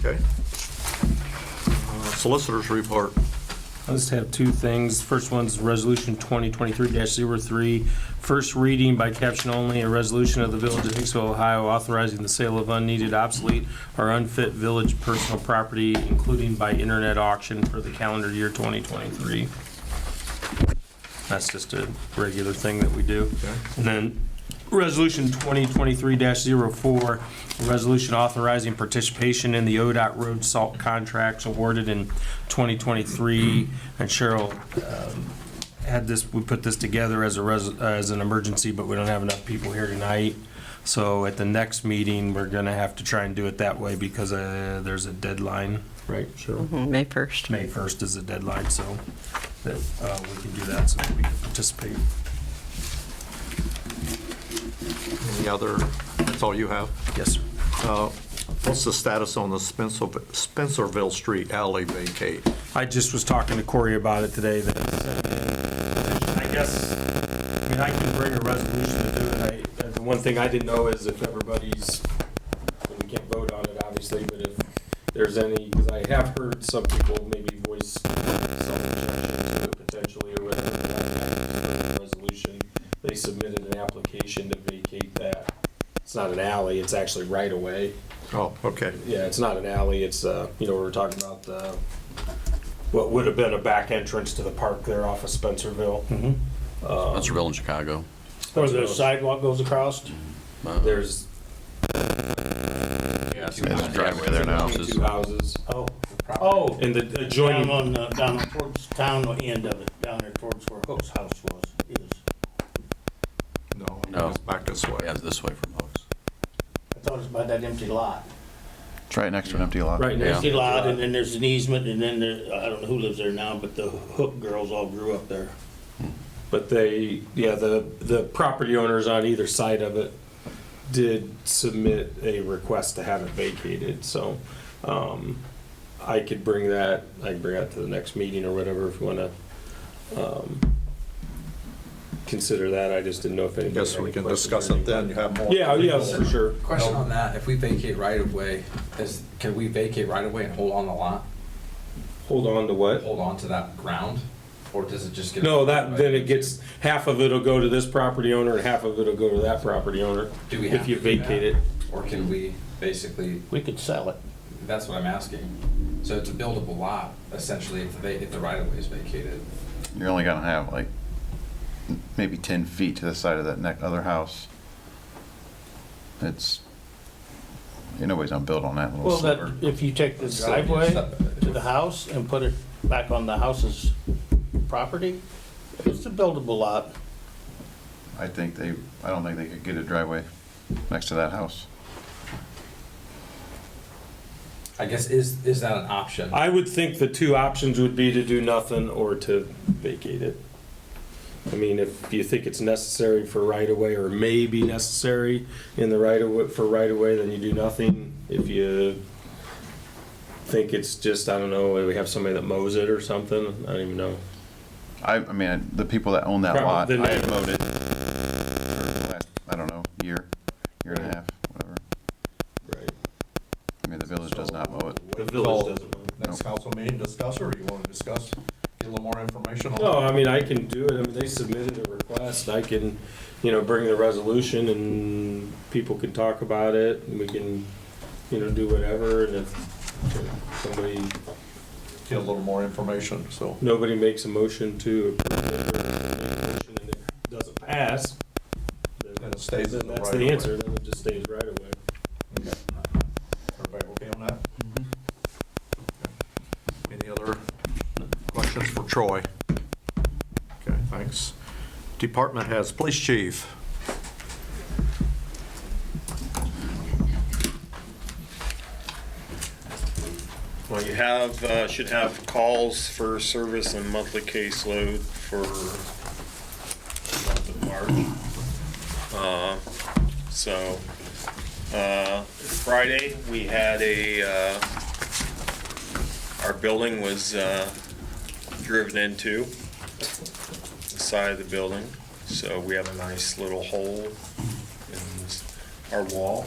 Okay. Uh, Solicitors report. I just have two things. First one's Resolution 2023-03, first reading by caption only, a resolution of the Village of Hicksville, Ohio authorizing the sale of unneeded, obsolete, or unfit village personal property, including by internet auction for the calendar year 2023. That's just a regular thing that we do. And then, Resolution 2023-04, a resolution authorizing participation in the ODOT road salt contracts awarded in 2023. And Cheryl um, had this, we put this together as a, res- as an emergency, but we don't have enough people here tonight. So at the next meeting, we're going to have to try and do it that way because uh, there's a deadline, right, Cheryl? May 1st. May 1st is the deadline, so that uh, we can do that, so that we can participate. Any other, that's all you have? Yes, sir. Uh, What's the status on the Spencer- Spencerville Street alley vacate? I just was talking to Corey about it today, that, I guess, I mean, I can bring a resolution to do it. I- The one thing I didn't know is if everybody's, we can't vote on it, obviously, but if there's any, because I have heard some people maybe voice some objection to potentially a resolution, resolution. They submitted an application to vacate that. It's not an alley, it's actually right away. Oh, okay. Yeah, it's not an alley, it's, uh, you know, we were talking about the, what would have been a back entrance to the park there off of Spencerville. That's real in Chicago. Uh, Where the sidewalk goes across? There's Yeah, there's a driveway there now. two houses. Oh, Oh, and the down adjoining, on, the- down towards town end of it, down there towards where Hook's house was, is. No, No. it's back this way. Yeah, it's this way from Oaks. I thought it was by that empty lot. It's right next to an empty lot. right now. Empty lot, and then there's an easement, and then there, I don't know who lives there now, but the Hook girls all grew up there. But they, yeah, the, the property owners on either side of it did submit a request to have it vacated, so, um, I could bring that, I can bring that to the next meeting or whatever if you wanna, um, consider that, I just didn't know if anybody. Guess had we any can questions discuss or it anything. then, you have more. Yeah, oh, yeah, for sure. Question on that, if we vacate right of way, is, can we vacate right of way and hold on the lot, Hold on to what? hold on to that ground? Or does it just get? No, that, then it gets, half of it'll go to this property owner and half of it'll go to that property owner. Do we have If you to do that? vacate it. Or can we basically, We could sell it. that's what I'm asking. So it's a buildable lot essentially if they, if the right of way is vacated. You're only gonna have like m- maybe ten feet to the side of that neck, other house. It's, ain't nobody's gonna build on that little Well, sliver. that, if you take the Still, you driveway step- to the house and put it back on the house's property, it's a buildable lot. I think they, I don't think they could get a driveway next to that house. I guess is, is that an option? I would think the two options would be to do nothing or to vacate it. I mean, if you think it's necessary for right of way or may be necessary in the right of way, for right of way, then you do nothing. If you think it's just, I don't know, we have somebody that mows it or something, I don't even know. I, I mean, the people that own that Probably lot, the I had mowed it. for the last, I don't know, year, year and a half, whatever. Right. I mean, the village does not mow it. The village doesn't. mow. Next council meeting, discuss, or you want to discuss, get a little more information No, I mean, I can do it. I mean, they submitted a request. I can, you know, bring the resolution and people can talk about it and we can, you know, do whatever. And if somebody, Get a little more information, so. nobody makes a motion to approve it or make a motion and it doesn't pass, then Then it stays in the that's right of the way. answer. Then it just stays right away. Everybody okay on that? Mm-hmm. Any other questions for Troy? Okay, thanks. Department heads, police chief. Well, you have, uh, should have calls for service and monthly caseload for month of March. Uh, So, uh, Friday, we had a, uh, our building was uh, driven into, the side of the building, so we have a nice little hole in this- our wall.